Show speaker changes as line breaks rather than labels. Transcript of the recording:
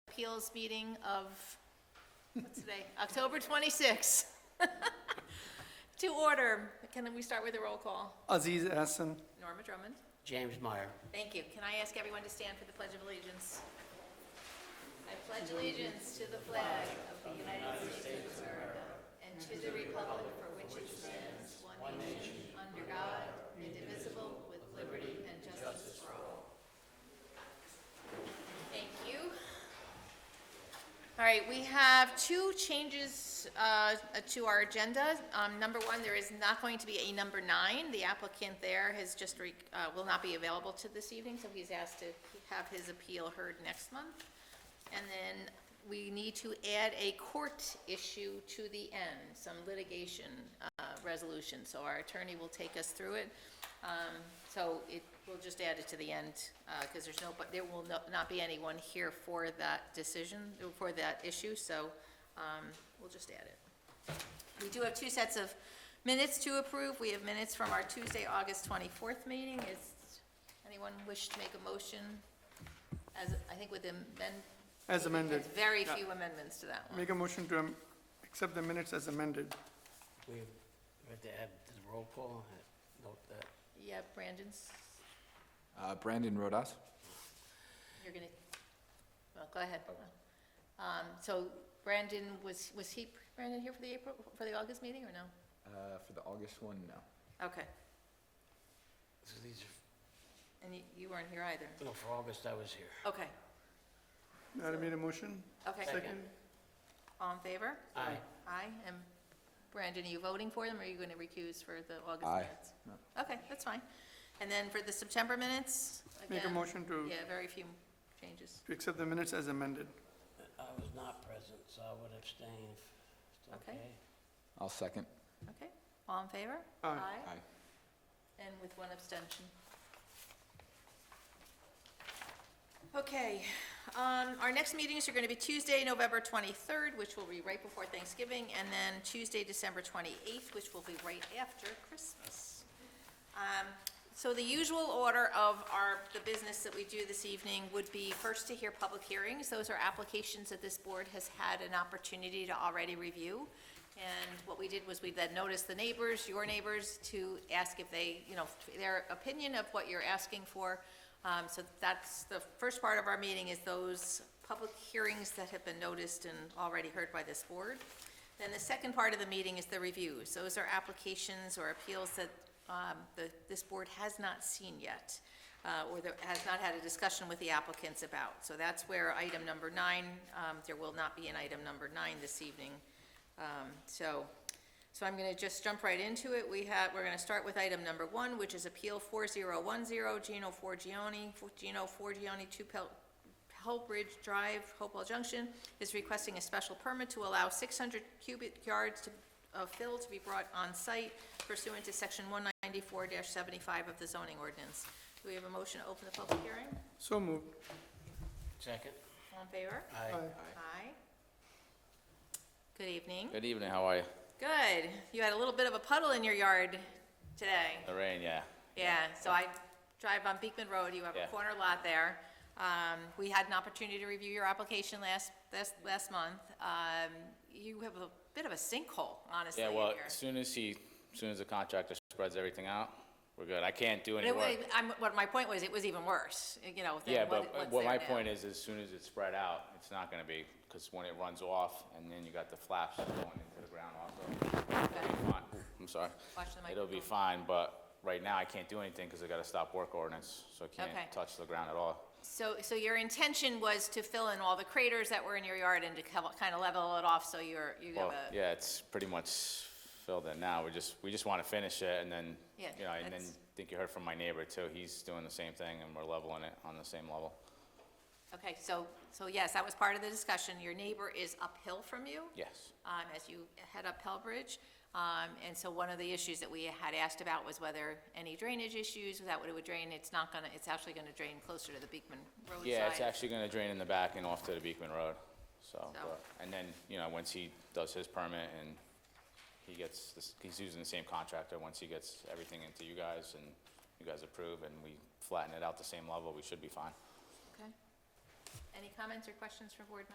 Appeals meeting of, what's today, October 26th. To order, can we start with a roll call?
Aziz Hassan,
Norma Drummond?
James Meyer.
Thank you. Can I ask everyone to stand for the Pledge of Allegiance? I pledge allegiance to the flag of the United States of America and to the republic for which it stands, one nation, under God, indivisible, with liberty and justice for all. Thank you. All right, we have two changes uh, to our agenda. Um, Number one, there is not going to be a number nine. The applicant there has just, re- uh, will not be available to this evening, so he's asked to have his appeal heard next month. And then we need to add a court issue to the end, some litigation uh, resolution. So our attorney will take us through it. Um, So it, we'll just add it to the end, because there's no, but there will no- not be anyone here for that decision, for that issue, so um, we'll just add it. We do have two sets of minutes to approve. We have minutes from our Tuesday, August 24th meeting. Is anyone wish to make a motion? As, I think with amend.
As amended.
There's Very
Yeah.
few amendments to that one.
make a motion to um, accept the minutes as amended.
We we have to add to the roll call, uh, note that.
Yeah, Brandon's,
Uh, Brandon Rodas.
you're gonna, well, go ahead. Um, So Brandon, was, was he, Brandon here for the April, for the August meeting or no?
Uh, for the August one, no.
Okay,
So these are,
and you, you weren't here either.
no, for August, I was here.
Okay,
I made a motion,
okay.
second.
All in favor?
Aye.
Aye, and Brandon, are you voting for them, or are you gonna recuse for the August
Aye.
minutes? Okay, that's fine. And then for the September minutes,
Make a
again,
motion to,
Yeah, very few changes.
to accept the minutes as amended.
I was not present, so I would abstain if it's
Okay.
okay.
I'll second.
Okay, all in favor?
Aye.
Aye.
And with one abstention. Okay, um, our next meetings are gonna be Tuesday, November twenty-third, which will be right before Thanksgiving, and then Tuesday, December twenty-eighth, which will be right after Christmas. Um, so the usual order of our, the business that we do this evening would be first to hear public hearings. Those are applications that this board has had an opportunity to already review. And what we did was we then noticed the neighbors, your neighbors, to ask if they, you know, their opinion of what you're asking for. Um, so that's, the first part of our meeting is those public hearings that have been noticed and already heard by this board. Then the second part of the meeting is the reviews. Those are applications or appeals that um, the- this board has not seen yet, uh, or that has not had a discussion with the applicants about. So that's where item number nine, um, there will not be an item number nine this evening. Um, So, so I'm going to just jump right into it. We have, we're going to start with item number one, which is Appeal 4010, Gino Forgione, Gino Forgione, 2 Pel- Hellbridge Drive, Hopewell Junction, is requesting a special permit to allow 600 cubic yards to- of fill to be brought on site pursuant to Section 194-75 of the zoning ordinance. Do we have a motion to open the public hearing?
So moved.
Second?
All in favor?
Aye.
Aye. Good evening.
Good evening, how are you?
Good. You had a little bit of a puddle in your yard today.
The rain, Oh, yeah.
Yeah, so I drive on Beekman Road, you have a
Yeah.
corner lot there. Um, we had an opportunity to review your application last, last, last month. Um, you have a bit of a sinkhole, honestly,
Yeah,
in
well,
your-
as soon as he, as soon as the contractor spreads everything out, we're good. I can't do
But
any
it, wa-
work.
I'm, what my point was, it was even worse, you know,
Yeah,
than what,
but uh,
what's
what my
there now.
point is, as soon as it's spread out, it's not gonna be, because when it runs off, and then you got the flaps going into the ground also. it'll be fine. Ooh, I'm sorry.
Watch the
It'll be
microphone.
fine, but right now I can't do anything because I got a stop work ordinance, so I
Okay.
can't touch the ground at all.
So, so your intention was to fill in all the craters that were in your yard and to kind of level it off so you're, you have
Well,
a.
yeah, it's pretty much filled in now. We just, we just want to finish it and then,
Yeah,
you know, and then
that's-
I think you heard from my neighbor too. He's doing the same thing and we're leveling it on the same level.
Okay, so, so yes, that was part of the discussion. Your neighbor is uphill from you?
Yes.
um, as you head up Pell Bridge. Um, and so one of the issues that we had asked about was whether any drainage issues, that what it would drain, it's not gonna, it's actually gonna drain closer to the Beekman Road side.
Yeah, it's actually going to drain in the back and off to the Beekman Road. So,
So-
but- and then, you know, once he does his permit and he gets, this- he's using the same contractor, once he gets everything into you guys and you guys approve and we flatten it out the same level, we should be fine.
Okay. Any comments or questions from board